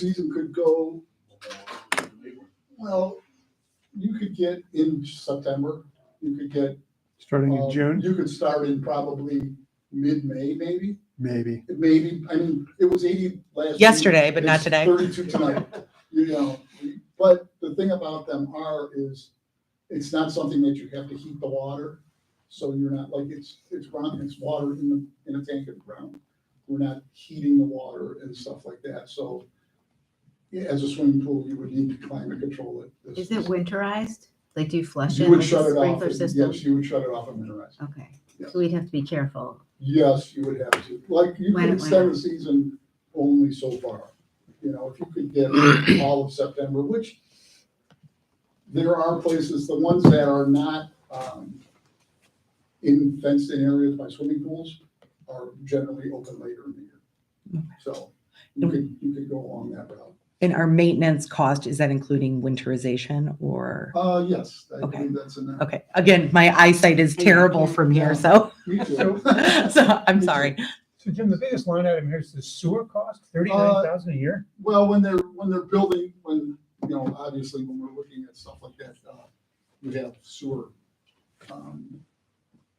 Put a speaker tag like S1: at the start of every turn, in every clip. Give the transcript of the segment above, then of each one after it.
S1: season could go, well, you could get in September, you could get.
S2: Starting in
S1: um,
S2: June,
S1: You could start in probably mid-May, maybe,
S2: maybe.
S1: maybe, I mean, it was eighty last. week.
S3: Yesterday, but not
S1: It's
S3: today.
S1: Thirty-two tonight, you know, but the thing about them are is, it's not something that you have to heat the water. So you're not like, it's, it's ground, it's water in the, in a tank of ground. We're not heating the water and stuff like that, so. yeah, As a swimming pool, you would need to climate control it. This-
S4: Is it
S1: this-
S4: winterized? Like, do you flush
S1: You
S4: it
S1: would
S4: with
S1: shut
S4: a
S1: it off,
S4: sprinkler
S1: and-
S4: system?
S1: yes, you would shut it off and winterize. it.
S4: Okay,
S1: Yeah.
S4: so we'd have to be careful.
S1: Yes, you would have to, like, you
S4: Why
S1: can
S4: not?
S1: extend the season only so far. You know, if you could get all of September, which there are places, the ones that are not, um, in fenced-in areas by swimming pools are generally open later in the year. So you could, you could go along that route.
S3: And our maintenance cost, is that including winterization or?
S1: Uh, yes, I
S3: Okay.
S1: believe that's in there.
S3: Okay, again, my eyesight is terrible from here, so,
S1: Me too.
S3: so I'm sorry.
S5: So Jim, the biggest line item here is the sewer cost,
S1: Uh,
S5: thirty-nine thousand a year?
S1: Well, when they're, when they're building, when, you know, obviously when we're looking at stuff like that, uh, we have sewer. Um,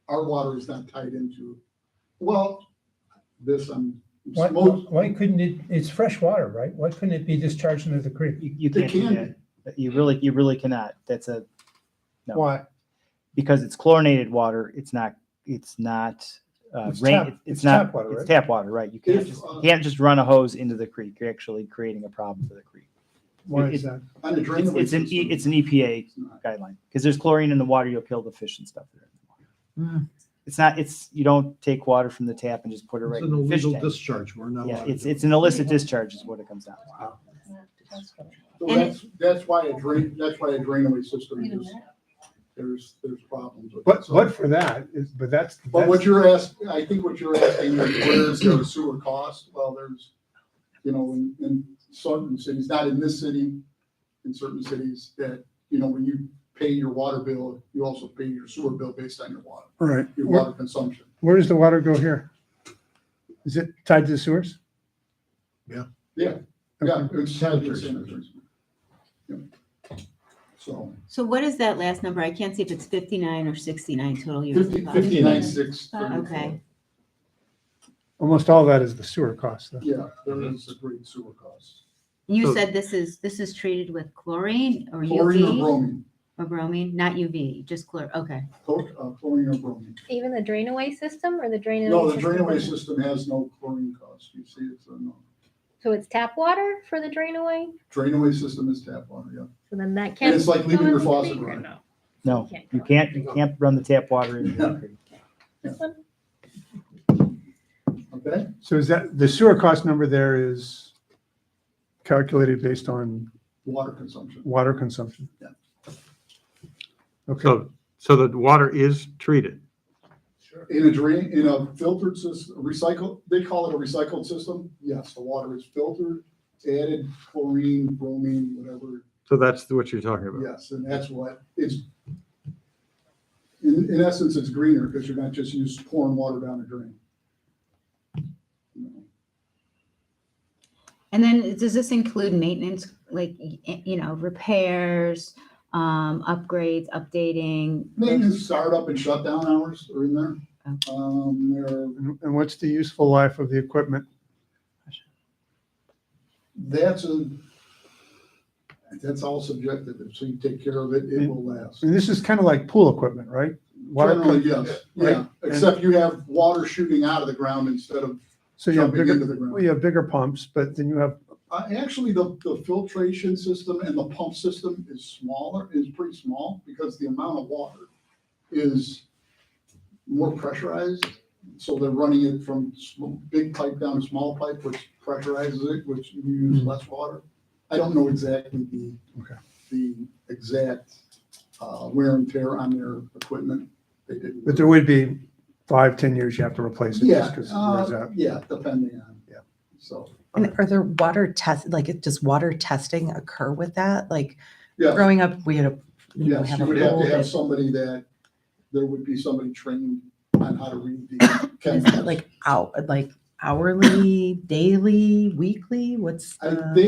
S1: Our water is not tied into, well, this, I'm,
S5: Why,
S1: smoke,
S5: why couldn't it, it's fresh water, right? Why couldn't it be discharged into the creek?
S6: You, you
S1: They
S6: can't do
S1: can
S6: that. That You really, you really cannot. That's a, No.
S5: Why?
S6: because it's chlorinated water. It's not, it's not, uh,
S5: It's tap-
S6: rain.
S5: it's
S6: It's not,
S5: tap water,
S6: it's
S5: right?
S6: tap water, right? You can't
S1: If,
S6: just,
S1: uh,
S6: you can't just run a hose into the creek. You're actually creating a problem for the creek.
S5: Why
S6: It-
S5: is that?
S1: on the
S6: It's,
S1: drainage
S6: it's an, E-
S1: system,
S6: it's an EPA
S1: it's not.
S6: guideline because there's chlorine in the water. You'll kill the fish and stuff. that are in the water.
S3: Mm.
S6: It's not, it's, you don't take water from the tap and just put it right
S7: It's
S6: in
S7: an
S6: the fish
S7: illegal
S6: tank.
S7: discharge. We're not
S6: Yeah,
S7: allowed to
S6: it's,
S7: do it.
S6: it's an illicit discharge is what it comes down to.
S1: So
S4: And-
S1: that's, that's why a drain, that's why a drainaway system is, there's, there's problems with. it.
S2: But,
S1: So-
S2: but for that is, but that's,
S1: But what
S2: that's,
S1: you're asking, I think what you're asking is where is there a sewer cost? Well, there's, you know, in, in certain cities, not in this city, in certain cities that, you know, when you pay your water bill, you also pay your sewer bill based on your water,
S2: right.
S1: your
S2: Where,
S1: water consumption.
S2: where does the water go here? Is it tied to the sewers?
S1: Yeah, it's tied to sanitary. Yep. So
S4: So what is that last number? I can't see if it's fifty-nine or sixty-nine total years.
S1: fifty, fifty-nine, six, thirty-four.
S4: Okay.
S2: Almost all that is the sewer cost. though.
S1: Yeah, there is a great sewer cost.
S4: You
S7: So-
S4: said this is, this is treated with chlorine or
S1: Chlorine or
S4: UV
S1: bromine?
S4: or bromine, not UV, just chlor, okay.
S1: Chlor- uh, Chlorine or bromine?
S8: Even the drain away system or the drain away?
S1: No, the
S8: system?
S1: drainaway system has no chlorine cost. You see, it's a no.
S8: So it's tap water for the drain away?
S1: Drainaway system is tap water, yeah.
S8: So then that can't.
S1: And it's like leaving
S8: go
S1: your
S8: in the
S1: faucet
S8: creek or
S1: running.
S8: no?
S6: No,
S8: Can't
S6: you
S8: go.
S6: can't, you can't run the tap water into the
S1: Yeah.
S6: creek.
S8: This one?
S1: Okay,
S2: So is that, the sewer cost number there is calculated based on
S1: water consumption.
S2: water consumption?
S1: Yeah.
S2: Okay,
S7: So, so the water is treated.
S1: In a drain, in a filtered system, recycle, they call it a recycled system. Yes, the water is filtered, added chlorine, bromine, whatever.
S7: So that's what you're talking about.
S1: Yes, and that's what it's. In, in essence, it's greener because you're not just used pouring water down a drain.
S4: And then does this include maintenance, like, y- you know, repairs, um, upgrades, updating?
S1: Maintenance, startup and shutdown hours are in there.
S4: Okay.
S1: Um, there,
S2: and and what's the useful life of the equipment?
S1: that's a, that's all subjective. So you take care of it, it will last.
S2: And this is kind of like pool equipment, right? Water-
S1: Generally, yes, yeah,
S2: Right?
S1: except you have water shooting out of the ground instead of
S2: So you have
S1: jumping into
S2: bigger,
S1: the
S2: well,
S1: ground.
S2: you have bigger pumps, but then you have
S1: Uh, actually, the, the filtration system and the pump system is smaller, is pretty small, because the amount of water is more pressurized, so they're running it from sm- big pipe down to small pipe, which pressurizes it, which you use less water. I don't know exactly the,
S2: Hmm. Okay.
S1: the exact, uh, wear and tear on their equipment. They didn't.
S2: But there would be five, ten years you have to replace it
S1: Yeah,
S2: just because it wears
S1: uh,
S2: out.
S1: yeah, depending on, yeah, so,
S3: And are there water tests, like, does water testing occur with that? Like,
S1: yeah.
S3: growing up, we had a, you know,
S1: Yes,
S3: have
S1: you
S3: a
S1: would have
S3: pool
S1: to have
S3: that,
S1: somebody that, there would be somebody trained on how to read the
S3: is
S1: chemicals.
S3: that like out, like hourly, daily, weekly? What's
S1: I-
S3: the?
S1: They